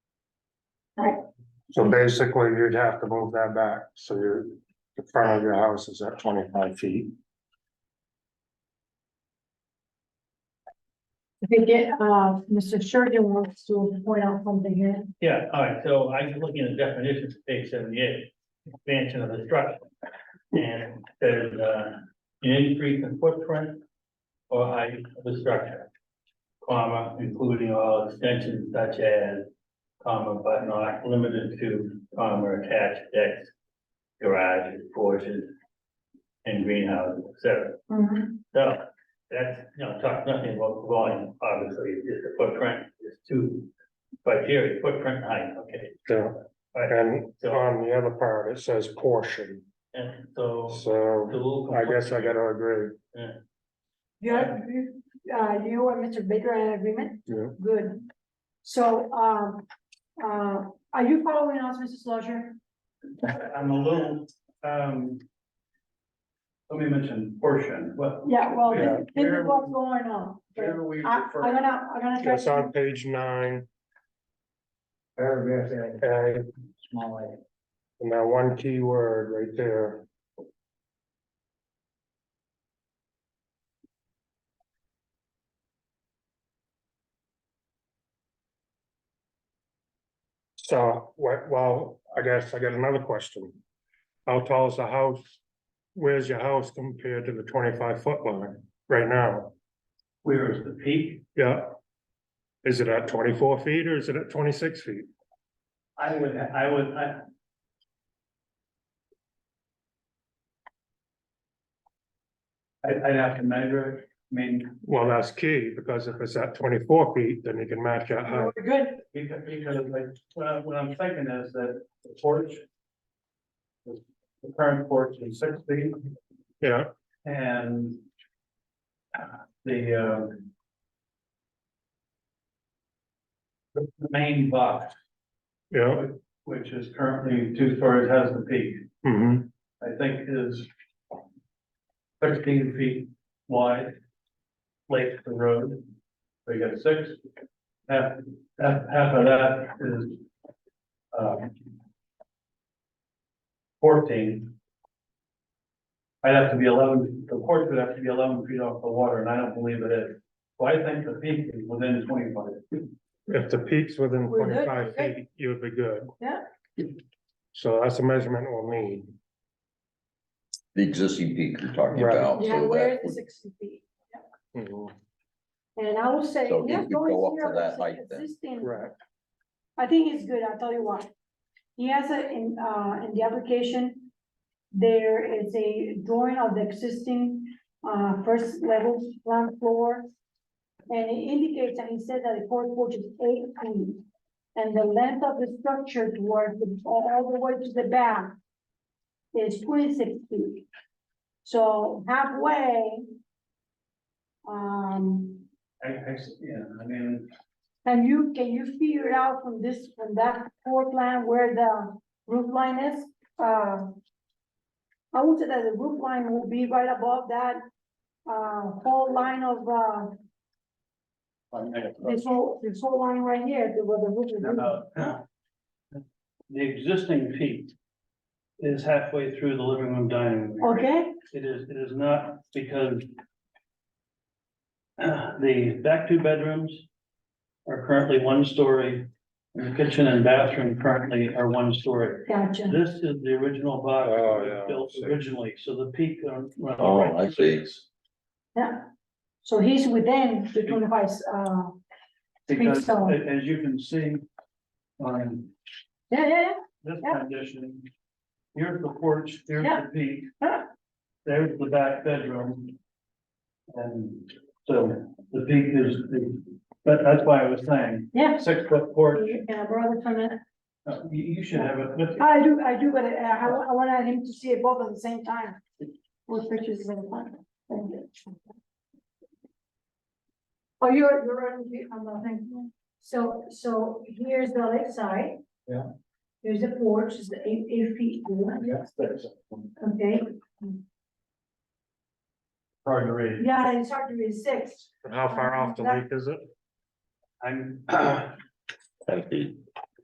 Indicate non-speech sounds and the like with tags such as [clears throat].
So basically, you'd have to move that back, so your, the front of your house is at twenty-five feet. I think it, uh, Mr. Shergan wants to point out something here. Yeah, all right, so I was looking at the definitions, page seventy-eight, expansion of the structure. And there's uh, an increase in footprint or height of the structure. Comma, including all extensions such as, comma, but not limited to, comma, attached decks, garages, porches, and greenhouses, et cetera. Mm-hmm. So that's, you know, talk nothing about volume, obviously, it's just the footprint, it's two criteria, footprint and height, okay. Yeah. And uh, on the other part, it says portion, And so. the so little I guess I gotta agree. Yeah, you, uh, you and Mr. Baker are in agreement? Yeah. Good. So, um, uh, are you following us, Mrs. Lozier? I'm a little, um. Let me mention portion, what, Yeah, well, Yeah. this this is what's going on. I, we I'm gonna, I'm gonna try. It's to- on page nine, Paragraph A, and, small a. and that one key word right there, so, wh- well, I guess I got another question. How tall is the house? Where's your house compared to the twenty-five foot line right now? Where is the peak? Yeah. Is it at twenty-four feet or is it at twenty-six feet? I would, I would, I. I'd, I'd have to measure it, I mean, Well, that's key, because if it's at twenty-four feet, then you can match that height. We're good. Because, because like, what I, what I'm thinking is that the porch. The the current porch is six feet Yeah, and. uh, The, uh. The the main box, yeah. which is currently two stories, has the peak, Mm-hmm. I think is. Thirteen feet wide. Length the road, so you got six. Half, half, half of that is. um, Fourteen. I'd have to be eleven, the porch would have to be eleven feet off the water, and I don't believe it is. So I think the peak is within twenty-five. If the peak's within We're good, twenty-five we're good. feet, you would be good. Yeah. So that's a measurement we'll need. The existing peak you're talking Right. about. so Yeah, that where is the would- sixty feet? Mhm. And I will say, So you yeah, could going go up to here, that it's height then. existing. Correct. I think it's good, I'll tell you why. He has a, in, uh, in the application, there is a drawing of the existing, uh, first level ground floor. And it indicates, and he said that the porch porch is eight feet. And the length of the structure towards the, all all the way to the back is twenty-six feet. So halfway, um, I, I, yeah, I mean, can you, can you figure it out from this, from that floor plan where the roof line is? Uh, I would say that the roof line will be right above that, uh, whole line of, uh, I'm this whole, this whole line right here, the- where the roof is. about [clears throat] the existing peak is halfway through the living room dining room. area. Okay, It is, it is not because [clears throat] uh, the back two bedrooms are currently one story, and the kitchen and bathroom currently are one story. gotcha. This is the original box Oh, that yeah, was built I see. originally, so the peak. um, on- on- Oh, I see. Yeah. So he's within the twenty-five, uh, Because so. a- as you can see on yeah, yeah, this Yeah. condition. Here's the porch, here's Yeah. the peak. Yeah. There's the back bedroom. And so the peak is, the but that's why I was saying, yeah. six foot porch, Yeah. Can I borrow it for a minute? uh, you, you should have it, with you. I do, I do, but I, I wa- I wanted him to see it both at the same time. Both pictures in the front. Oh, you're, you're on, the- on the thing. So, so here's the left side. Yeah. Here's the porch, it's the eight, eight feet, yes, that's okay? hard to read. Yeah, it's hard to read six. And how far off the lake is it? I'm, Ten feet.